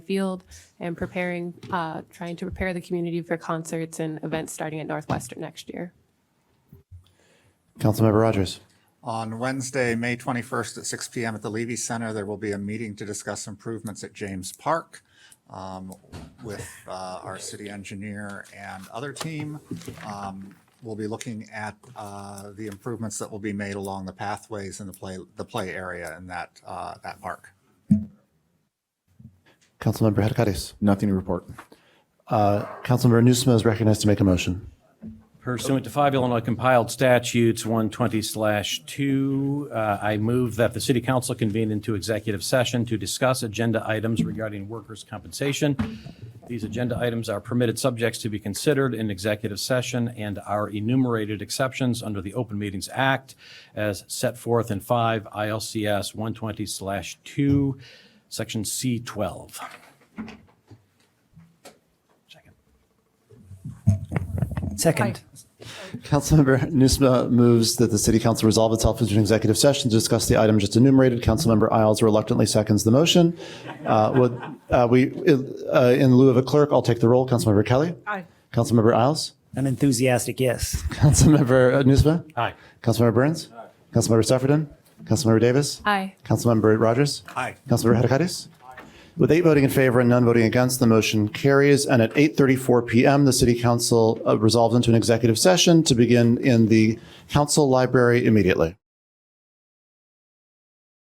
Field and preparing, uh, trying to prepare the community for concerts and events starting at Northwestern next year. Councilmember Rogers. On Wednesday, May 21st at 6 PM at the Levy Center, there will be a meeting to discuss improvements at James Park um, with uh, our city engineer and other team. Um, We'll be looking at uh, the improvements that will be made along the pathways and the play, the play area in that, uh, that park. Councilmember Hadakatis. Nothing to report. Councilmember Nusma is recognized to make a motion. Pursuant to five Illinois compiled statutes, 120/2, uh, I move that the city council convene into executive session to discuss agenda items regarding workers' compensation. These agenda items are permitted subjects to be considered in executive session and are enumerated exceptions under the Open Meetings Act as set forth in 5 ILCS 120/2, Section C12. Second. Councilmember Nusma moves that the city council resolve itself into an executive session to discuss the item just enumerated. Councilmember Isles reluctantly seconds the motion. Uh, would, uh, we, uh, in lieu of a clerk, I'll take the roll. Councilmember Kelly. Aye. Councilmember Isles. An enthusiastic yes. Councilmember Nusma. Aye. Councilmember Burns. Councilmember Sufferton. Councilmember Davis. Aye. Councilmember Rogers. Aye. Councilmember Hadakatis? With eight voting in favor and none voting against, the motion carries. And at 8:34 PM, the city council uh, resolves into an executive session to begin in the council library immediately.